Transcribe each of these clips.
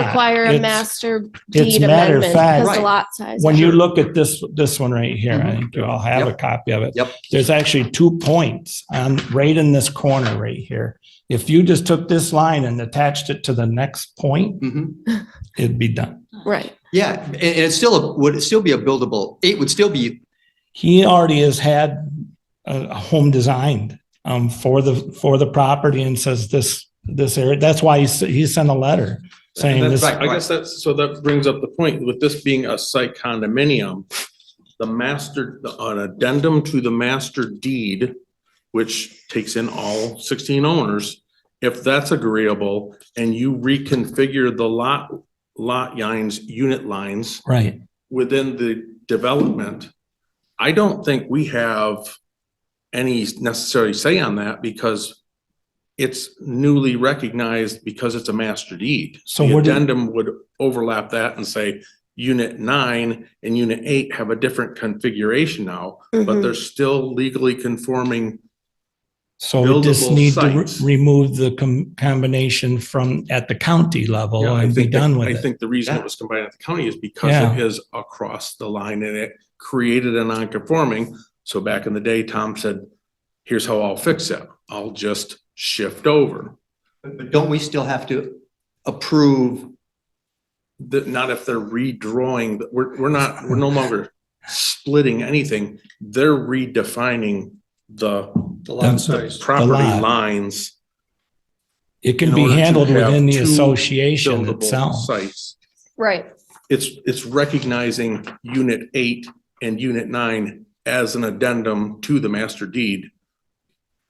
require a Ah, It's- master it's deed matter of amendment fact- because the Right. lot size. When you look at this, this one right Mm-hmm. here, I Mhm. think you all have a Yep. copy of it. Yep. There's actually two points on right in this corner right here. If you just took this line and attached it to the next point, Mhm. it'd be done. Right, Yeah, and and it's still, a- would it still be a buildable, it would still be, He already has had a a home designed um, for the, for the property and says this, this area. That's why he, s- he sent a letter saying And this. that's- Right, I guess that's, so that brings up the point, with this being a site condominium, the master, an addendum to the master deed, which takes in all sixteen owners, if that's agreeable, and you reconfigure the lot, lot lines, unit lines Right. within the development, I don't think we have any necessary say on that because it's newly recognized because it's a master deed. So The what do- addendum would overlap that and say, unit nine and unit eight have a different configuration now, but Mhm. they're still legally conforming. So we just Buildable need to re- sites. remove the com- combination from, at the county level Yeah, I and be think that- done with I it. think the reason it was combined at the county is because it is across the line and it created a non-conforming. So back in the day, Tom said, here's how I'll fix it. I'll just shift over. but don't we still have to approve? That, not if they're redrawing, but we're, we're not, we're no longer splitting anything. They're redefining the the Um, lot the size? property lot. lines. It can in be order to handled have within the two association buildable itself. sites. right. It's, it's recognizing unit eight and unit nine as an addendum to the master deed.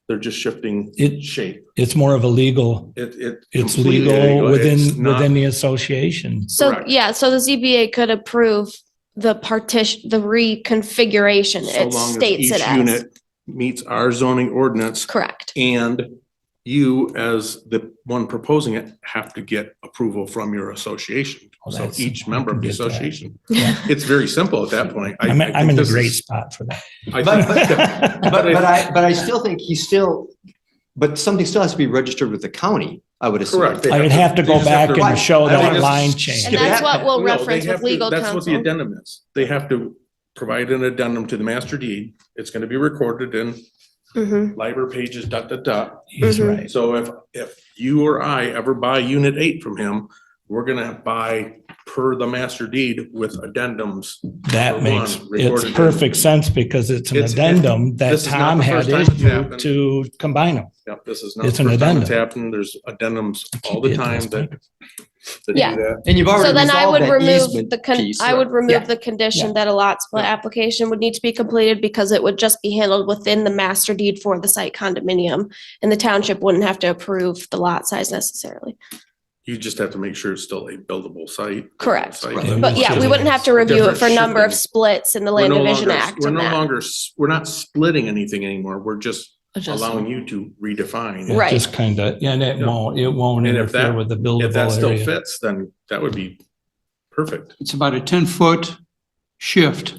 They're just shifting It- shape. It's more of a legal, It, it. it's completely legal It's within, not- within the association. So, Correct. yeah, so the ZBA could approve the partition, the reconfiguration. so It long as states it each as. unit Meets our zoning ordinance Correct, and you as the one proposing it have to get approval from your association. Oh, So that's- each member of the I can get that. association. Yeah. It's very simple at that point. I- I'm, I I'm think in a this is- great spot for that. I But- think- But, but I, but I still think he still, but something still has to be registered with the county, I would assume. Correct. I would have to They go just have back to- and show I think that it's- line change. and Yeah. that's what we'll No, they reference have with to- legal That's what the counsel. addendum is. They have to provide an addendum to the master deed. It's gonna be recorded in Mhm. library pages, dot, dot, dot. He's Mhm. right. So if, if you or I ever buy unit eight from him, we're gonna buy per the master deed with addendums. That For makes, one, it's recorded in- perfect sense because it's an It's- it- addendum that this is not Tom the had first time it's issued happened. to combine them. Yep, this is not. the It's an first time It's addendum. happened. There's addendums all the Keep it time this that. that do Yeah. that. And you've So already then I would resolved that remove easement the, con- piece. I would Yeah. remove the condition that a lot split application would need to be completed because it would just be handled within the master deed for the site condominium. And the township wouldn't have to approve the lot size necessarily. You just have to make sure it's still a buildable site. Correct. Site. Right. And But it's yeah, we just- wouldn't have to review it different for number of shipping. splits in the We're Land no Division longer- Act We're and no that. longer, s- we're not splitting anything anymore. We're just allowing you to It redefine. Right. Just kind of, yeah, and it Yeah. won't, it won't And if interfere that- with the If that buildable still area. fits, then that would be perfect. It's about a ten-foot shift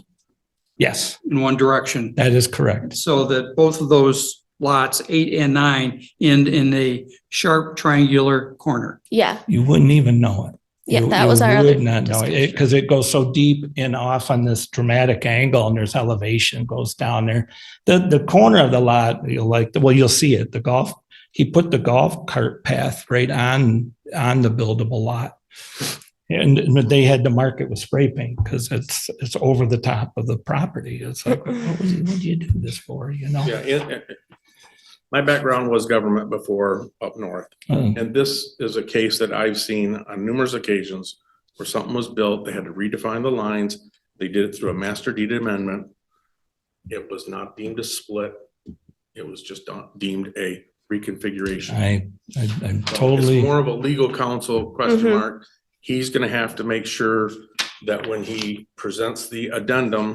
Yes, in one direction, that is correct. so that both of those lots, eight and nine, end in a sharp triangular corner. Yeah, You wouldn't even know it. yeah, You- that you was our other. Would not know it discussion. because it goes so deep and off on this dramatic angle and there's elevation goes down there. The, the corner of the lot, you'll like, well, you'll see it, the golf, he put the golf cart path right on, on the buildable lot. And they had to mark it with spray paint because it's, it's over the top of the property. It's like, what was- what do you do this for, you know? Yeah. it- it- My background was government before up north, Uh, and this is a case that I've seen on numerous occasions where something was built, they had to redefine the lines, they did it through a master deed amendment. It was not deemed a split, it was just not deemed a reconfiguration. I, I- I'm It's totally, more of a legal counsel question Mhm. mark. He's gonna have to make sure that when he presents the addendum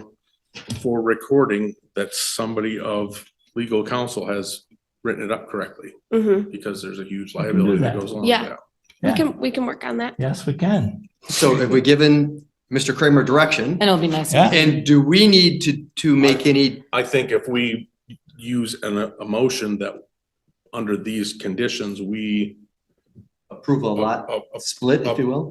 for recording, that somebody of legal counsel has written it up correctly, Mhm. because there's a huge can do liability that that. goes along with Yeah. that. We Yeah. can, we can work on that. yes, we can. So have we given Mr. Kramer direction? And it'll be nice. Yeah. And do we need to, to make any, I think if we use an, a motion that, under these conditions, we approve a lot a- a- split, if you will?